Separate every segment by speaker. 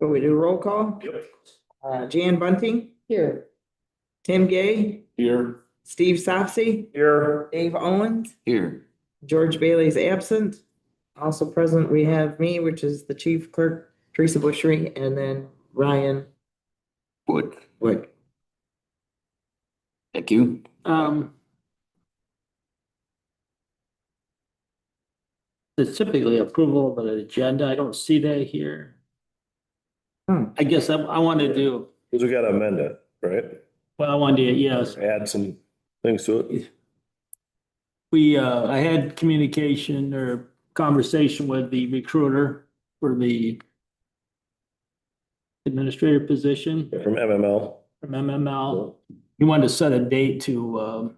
Speaker 1: Will we do roll call?
Speaker 2: Yep.
Speaker 1: Uh, Jan Bunting,
Speaker 3: Here.
Speaker 1: Tim Gay,
Speaker 2: Here.
Speaker 1: Steve Sopsey,
Speaker 2: Here.
Speaker 1: Dave Owens,
Speaker 4: Here.
Speaker 1: George Bailey's absent. Also present, we have me, which is the chief clerk, Teresa Bushry, and then Ryan
Speaker 4: Wood.
Speaker 1: Wood.
Speaker 4: Thank you.
Speaker 5: Um. It's typically approval of an agenda. I don't see that here.
Speaker 1: Hmm.
Speaker 5: I guess I, I want to do,
Speaker 2: Cause we gotta amend it, right?
Speaker 5: well, I wanted to, yes,
Speaker 2: Add some things to it.
Speaker 5: we, uh, I had communication or conversation with the recruiter for the administrator position
Speaker 2: From MML.
Speaker 5: from MML. He wanted to set a date to, um,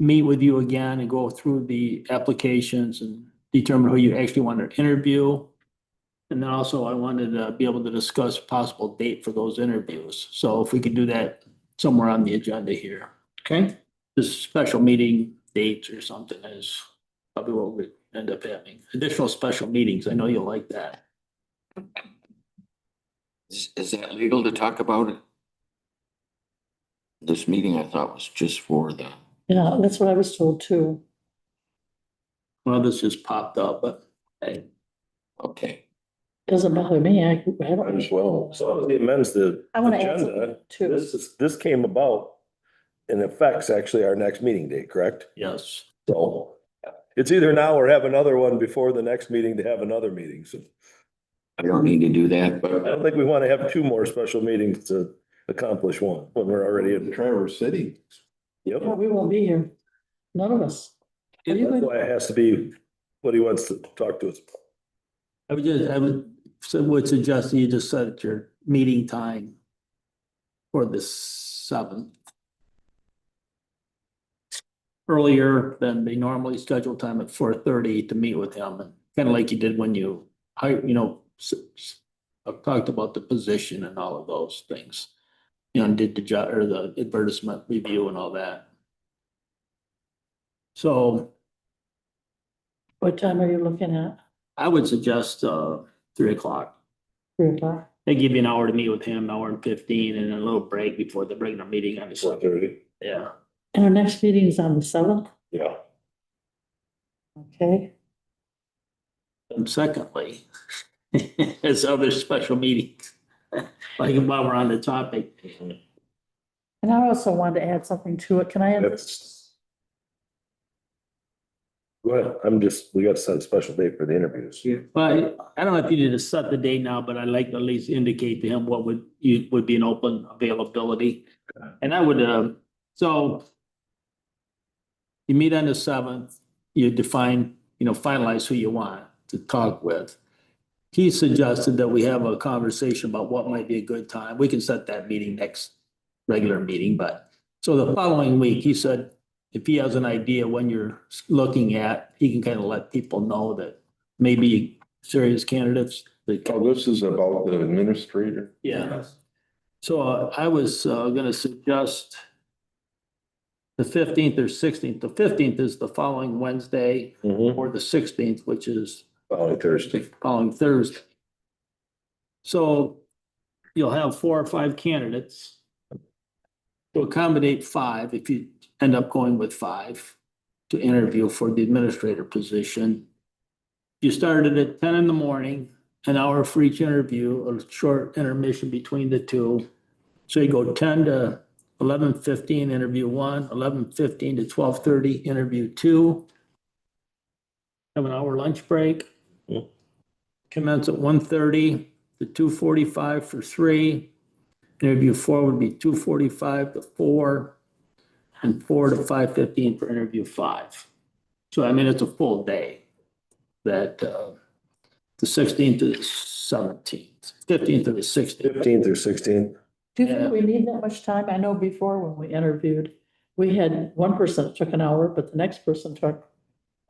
Speaker 5: meet with you again and go through the applications and determine who you actually want to interview. And then also I wanted to be able to discuss possible date for those interviews. So if we could do that somewhere on the agenda here.
Speaker 1: Okay,
Speaker 5: This special meeting dates or something is probably what we end up having. Additional special meetings. I know you'll like that.
Speaker 4: Is, is that legal to talk about it? This meeting I thought was just for the,
Speaker 3: Yeah, that's what I was told too.
Speaker 5: Well, this just popped up, but hey,
Speaker 4: okay.
Speaker 3: Doesn't bother me. I I
Speaker 2: Might as
Speaker 3: haven't.
Speaker 2: well. So that was the amends the
Speaker 3: I want to add something
Speaker 2: agenda.
Speaker 3: too.
Speaker 2: This is, this came about and affects actually our next meeting date, correct?
Speaker 5: yes.
Speaker 2: So it's either now or have another one before the next meeting to have another meeting. So
Speaker 4: I don't need to do that,
Speaker 2: I
Speaker 4: but
Speaker 2: don't think we want to have two more special meetings to accomplish one when we're already in.
Speaker 6: Traverse City.
Speaker 2: Yep.
Speaker 3: Well, We won't be here. None of us. Are you
Speaker 2: That's
Speaker 3: going-
Speaker 2: why it has to be what he wants to talk to us. about.
Speaker 5: I would just, I would, so would suggest you just set your meeting time for the seventh. Earlier than the normally scheduled time at four thirty to meet with him, and kind of like you did when you, I, you know, s- s- I've talked about the position and all of those things. You know, and did the job or the advertisement review and all that. So
Speaker 3: What time are you looking at?
Speaker 5: I would suggest, uh, three o'clock.
Speaker 3: Three o'clock?
Speaker 5: They give you an hour to meet with him, hour and fifteen, and a little break before the regular meeting on the
Speaker 2: Four
Speaker 5: side.
Speaker 2: thirty.
Speaker 5: Yeah.
Speaker 3: And our next meeting is on the seventh,
Speaker 2: Yeah.
Speaker 3: okay?
Speaker 5: And secondly, as other special meetings, like while we're on the topic,
Speaker 2: Mm-hmm.
Speaker 3: And I also wanted to add something to it. Can I add?
Speaker 2: That's- Go ahead. I'm just, we got to set a special date for the interviews.
Speaker 5: but I don't know if you need to set the date now, but I'd like to at least indicate to him what would, you, would be an open availability. And I would, uh, so you meet on the seventh, you define, you know, finalize who you want to talk with. He suggested that we have a conversation about what might be a good time. We can set that meeting next regular meeting, but so the following week, he said, if he has an idea when you're looking at, he can kind of let people know that maybe serious candidates. that-
Speaker 6: Oh, this is about the administrator.
Speaker 5: Yeah. So uh, I was uh, gonna suggest the fifteenth or sixteenth. The fifteenth is the following Wednesday
Speaker 2: Mhm.
Speaker 5: or the sixteenth, which is
Speaker 2: Following Thursday.
Speaker 5: following Thursday. So you'll have four or five candidates. To accommodate five, if you end up going with five to interview for the administrator position. You started at ten in the morning, an hour for each interview, a short intermission between the two. So you go ten to eleven fifteen, interview one. Eleven fifteen to twelve thirty, interview two. Have an hour lunch break commence at 1:30 to two forty-five for three. Interview four would be two forty-five to four, and four to five fifteen for interview five. So I mean, it's a full day. That, uh, the sixteenth to the seventeenth, fifteenth to the sixteenth.
Speaker 2: Fifteenth or sixteenth.
Speaker 3: Do you think we need that much time? I know before when we interviewed, we had one person that took an hour, but the next person took,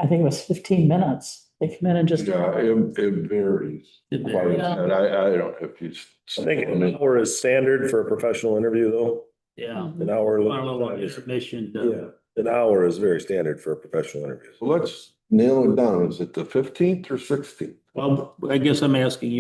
Speaker 3: I think it was fifteen minutes. They come in and just.
Speaker 6: Yeah, it, it varies. quite a bit. I, I don't, if you.
Speaker 2: I think an hour is standard for a professional interview though.
Speaker 5: Yeah.
Speaker 2: An hour.
Speaker 5: Our little intermission, uh,
Speaker 2: Yeah, an hour is very standard for a professional interview.
Speaker 6: So Let's nail it down. Is it the fifteenth or sixteenth?
Speaker 5: well, I guess I'm asking you.